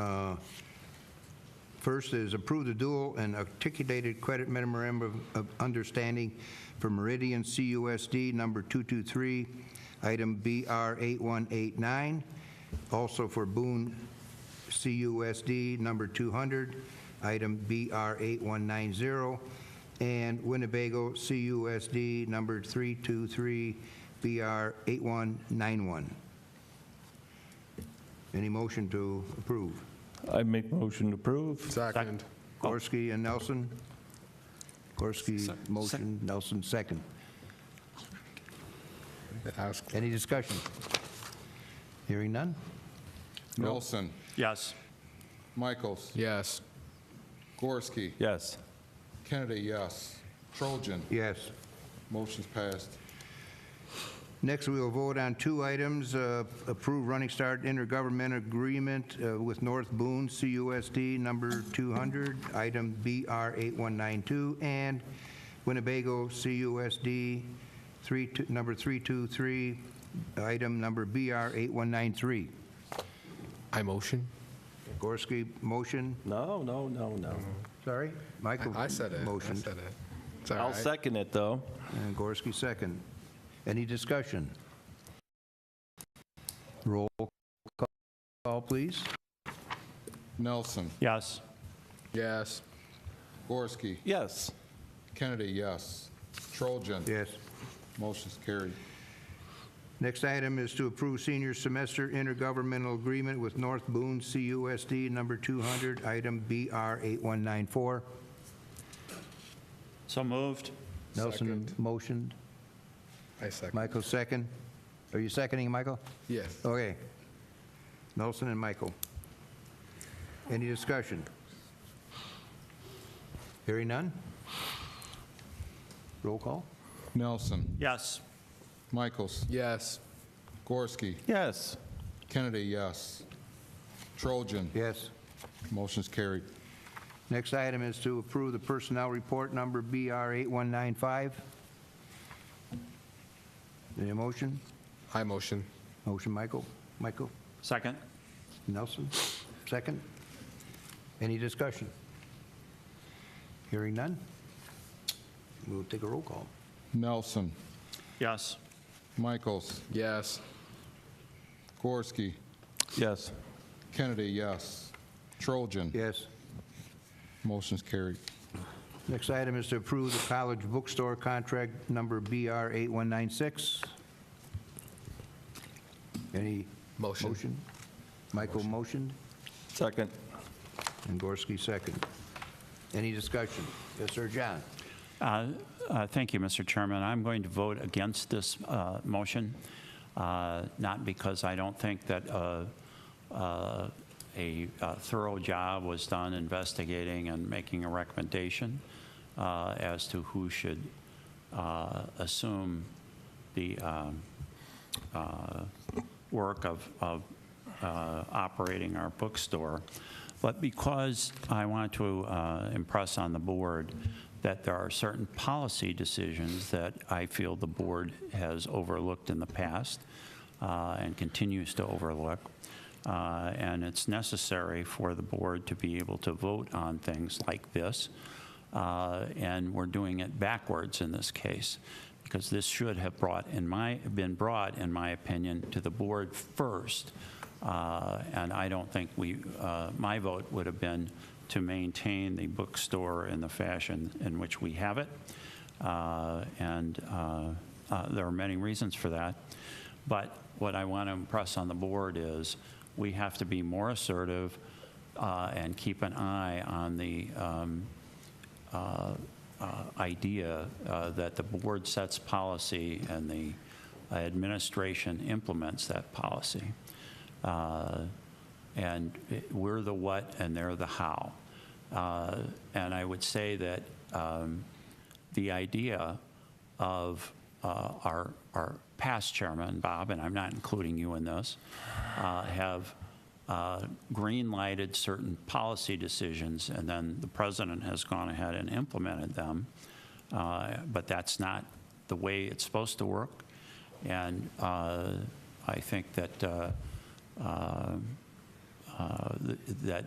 Uh, First is approve the dual and articulated credit memorandum of of understanding for Meridian CUSD number 223, item BR 8189, also for Boone CUSD number 200, item BR 8190, and Winnebago CUSD number 323, BR 8191. Any motion to approve? I make motion to approve. Second. Gorski and Nelson? Gorski, motion, Nelson, second. Ask. Any discussion? Hearing none? Nelson. Yes. Michaels. Yes. Gorski. Yes. Kennedy, yes. Trojan. Yes. Motion's passed. Next, we will vote on two items. uh, Approve Running Start Intergovernmental Agreement uh, with North Boone, CUSD number 200, item BR 8192, and Winnebago, CUSD 32 number 323, item number BR 8193. I motion? Gorski, motion. No, no, no, no. Sorry? Michael. I said it. I Motion. said it. It's all I'll right. second it, though. And Gorski, second. Any discussion? Roll call, please. Nelson. Yes. Yes. Gorski. Yes. Kennedy, yes. Trojan. Yes. Motion's carried. Next item is to approve senior semester intergovernmental agreement with North Boone CUSD number 200, item BR 8194. So moved. Nelson Second. motioned, I second. Michael second. Are you seconding, Michael? Yes. Okay. Nelson and Michael. Any discussion? Hearing none? Roll call? Nelson. Yes. Michaels. Yes. Gorski. Yes. Kennedy, yes. Trojan. Yes. Motion's carried. Next item is to approve the personnel report number BR 8195. Any motion? I motion. Motion, Michael? Michael? Second. Nelson? Second? Any discussion? Hearing none? We'll take a roll call. Nelson. Yes. Michaels. Yes. Gorski. Yes. Kennedy, yes. Trojan. Yes. Motion's carried. Next item is to approve the college bookstore contract number BR 8196. Any? Motion. Michael motioned, Second. and Gorski second. Any discussion? Yes, sir, John? Uh, uh, Thank you, Mr. Chairman. I'm going to vote against this uh, motion, uh, not because I don't think that uh, uh, a uh, thorough job was done investigating and making a recommendation uh, as to who should uh, assume the um, uh, work of, of uh, operating our bookstore. But because I want to uh, impress on the board that there are certain policy decisions that I feel the board has overlooked in the past uh, and continues to overlook, uh, and it's necessary for the board to be able to vote on things like this. Uh, and we're doing it backwards in this case because this should have brought in my been brought in my opinion to the board first uh, and I don't think we uh, my vote would have been to maintain the bookstore in the fashion in which we have it uh, and uh, uh, there are many reasons for that but what I want to impress on the board is we have to be more assertive uh, and keep an eye on the um, uh, uh, idea uh, that the board sets policy and the administration implements that policy. Uh, And it- we're the what and they're the how. Uh, And I would say that um, the idea of uh, our, our past chairman, Bob, and I'm not including you in this, uh, have uh, green-lighted certain policy decisions, and then the president has gone ahead and implemented them. Uh, But that's not the way it's supposed to work. And uh, I think that uh, uh, uh, th- that